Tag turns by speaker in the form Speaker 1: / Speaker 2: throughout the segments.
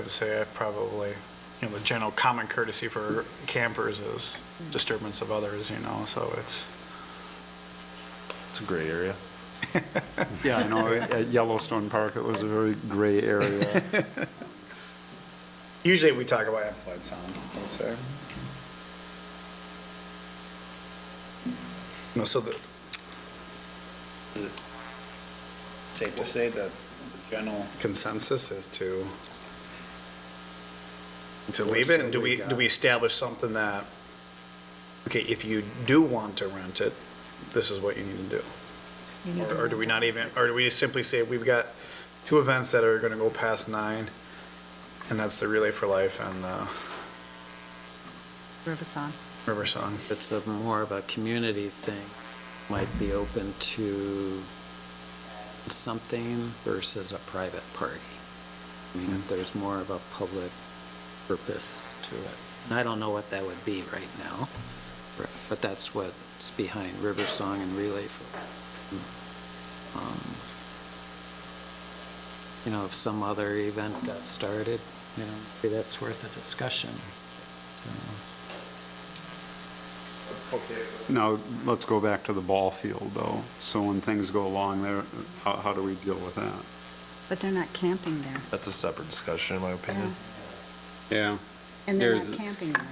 Speaker 1: would say I probably, you know, the general common courtesy for campers is disturbance of others, you know, so it's,
Speaker 2: It's a gray area.
Speaker 3: Yeah, I know, at Yellowstone Park, it was a very gray area.
Speaker 1: usually we talk about amplified sound, I would say. No, so the, is it safe to say that the general consensus is to, to leave it, and do we, do we establish something that, okay, if you do want to rent it, this is what you need to do?
Speaker 4: You need
Speaker 1: Or-
Speaker 4: to
Speaker 1: Or do we not even, or do we just simply say, we've got two events that are going to go past nine, and that's the Relay for Life and the
Speaker 4: Riverside.
Speaker 1: River Song?
Speaker 5: It's a more of a community thing, might be open to something versus a private party. I mean, if there's more of a public purpose to it. And I don't know what that would be right now, but that's what's behind River Song and Relay for. um, You know, if some other event got started, you know, maybe that's worth a discussion. So,
Speaker 3: Now, let's go back to the ball field, though. So when things go along there, how, how do we deal with that?
Speaker 4: But they're not camping there.
Speaker 2: That's a separate discussion, in my opinion.
Speaker 6: Yeah,
Speaker 4: And they're not
Speaker 6: There's-
Speaker 4: camping there.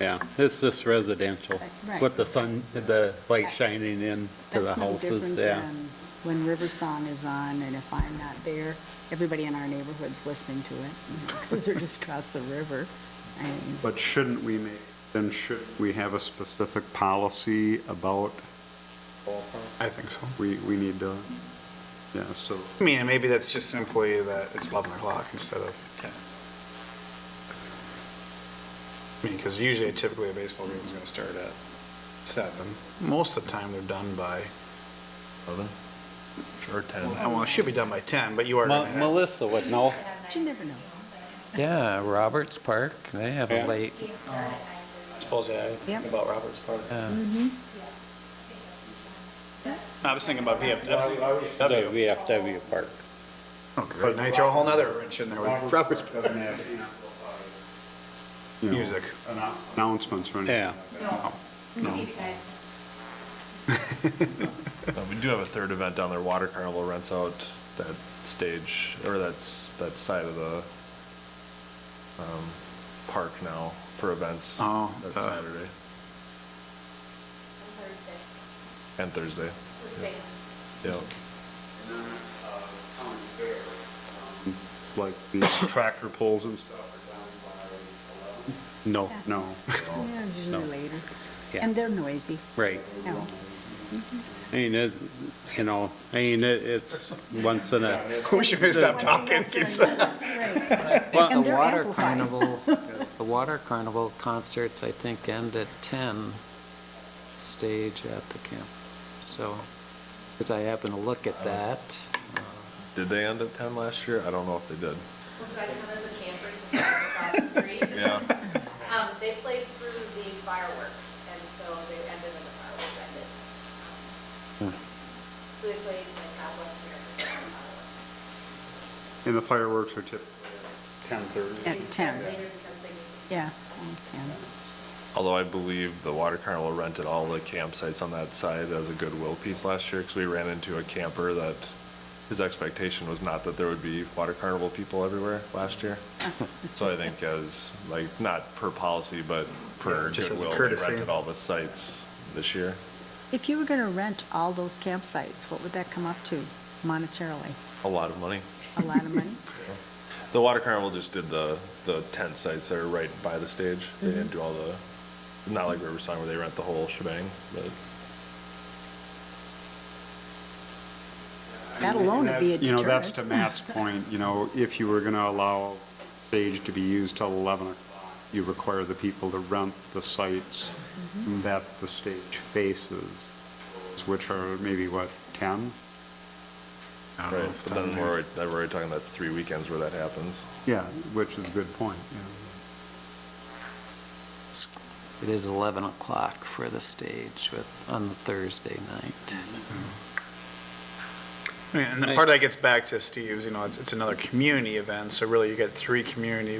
Speaker 6: yeah, it's just residential,
Speaker 4: Right.
Speaker 6: with the sun, the light shining in to the
Speaker 4: That's no
Speaker 6: houses,
Speaker 4: different
Speaker 6: yeah.
Speaker 4: than when Riverside is on and if I'm not there, everybody in our neighborhood's listening to it because they're just across the river. I mean,
Speaker 3: But shouldn't we make, then should we have a specific policy about,
Speaker 1: I think so.
Speaker 3: we, we need to, yeah, so.
Speaker 1: I mean, and maybe that's just simply that it's 11 o'clock instead of 10. I mean, because usually typically a baseball game is going to start at 7. Most of the time, they're done by,
Speaker 2: Eleven? Or ten?
Speaker 1: well, it should be done by 10, but you are
Speaker 6: Mel-
Speaker 1: going to have...
Speaker 6: Melissa would know,
Speaker 4: But you never know.
Speaker 5: Yeah, Roberts Park, they have a
Speaker 6: Yeah.
Speaker 5: late
Speaker 1: Suppose, yeah,
Speaker 4: Yep.
Speaker 1: about Robert's Park.
Speaker 5: Yeah.
Speaker 1: I was thinking about
Speaker 6: the
Speaker 1: VFW.
Speaker 6: VFW park.
Speaker 1: But now you throw a whole nother wrench in there with Robert's
Speaker 3: Doesn't have you know,
Speaker 1: music.
Speaker 3: Announcements or anything.
Speaker 6: Yeah,
Speaker 3: No, no.
Speaker 2: Uh, We do have a third event down there, Water Carnival rents out that stage, or that's, that side of the, um, park now for events.
Speaker 1: Oh,
Speaker 2: That's
Speaker 1: uh,
Speaker 2: Saturday and Thursday, yeah.
Speaker 1: uh, um,
Speaker 3: Like the tractor pulls and stuff are down by 11? No, no.
Speaker 4: Yeah, usually
Speaker 6: no.
Speaker 4: later.
Speaker 6: Yeah.
Speaker 4: And they're noisy. Oh,
Speaker 6: right.
Speaker 4: No.
Speaker 6: I mean, it, you know, I mean, it- it's once in a,
Speaker 1: Wish you could stop talking.
Speaker 4: Right.
Speaker 5: Well,
Speaker 4: And
Speaker 5: the
Speaker 4: they're
Speaker 5: water
Speaker 4: amplified.
Speaker 5: carnival, the water carnival concerts, I think, end at 10, stage at the camp. So, because I happened to look at that. uh,
Speaker 2: Did they end at ten last year? I don't know if they did.
Speaker 7: Yeah. Um, they played through the fireworks, and so they ended when the fireworks ended. So they played like half West America.
Speaker 3: And the fireworks are typically
Speaker 4: At 10,
Speaker 7: Later because they.
Speaker 4: yeah, at 10.
Speaker 2: Although I believe the water carnival rented all the campsites on that side as a goodwill piece last year, because we ran into a camper that, his expectation was not that there would be water carnival people everywhere last year. So I think as, like, not per policy, but per
Speaker 1: Just as a
Speaker 2: goodwill, they
Speaker 1: courtesy.
Speaker 2: rented all the sites this year.
Speaker 4: If you were going to rent all those campsites, what would that come up to monetarily?
Speaker 2: A lot of money.
Speaker 4: A lot of money?
Speaker 2: The water carnival just did the, the tent sites that are right by the stage. They
Speaker 1: Mm-hmm.
Speaker 2: didn't do all the, not like River Song where they rent the whole shebang, but.
Speaker 4: That alone would be a
Speaker 3: You know, that's to
Speaker 4: deterrent.
Speaker 3: Matt's point, you know, if you were going to allow stage to be used till 11 o'clock, you require the people to rent the sites
Speaker 4: Mm-hmm.
Speaker 3: that the stage faces, which are maybe, what, 10?
Speaker 1: I don't know
Speaker 2: Right,
Speaker 1: if
Speaker 2: but
Speaker 1: that-
Speaker 2: then we're, already- then we're already talking, that's three weekends where that happens.
Speaker 3: Yeah, which is a good point, yeah.
Speaker 5: it's- It is 11 o'clock for the stage with, on the Thursday night.
Speaker 1: I mean, And the part that gets back to Steve's, you know, it's, it's another community event, so really you get three community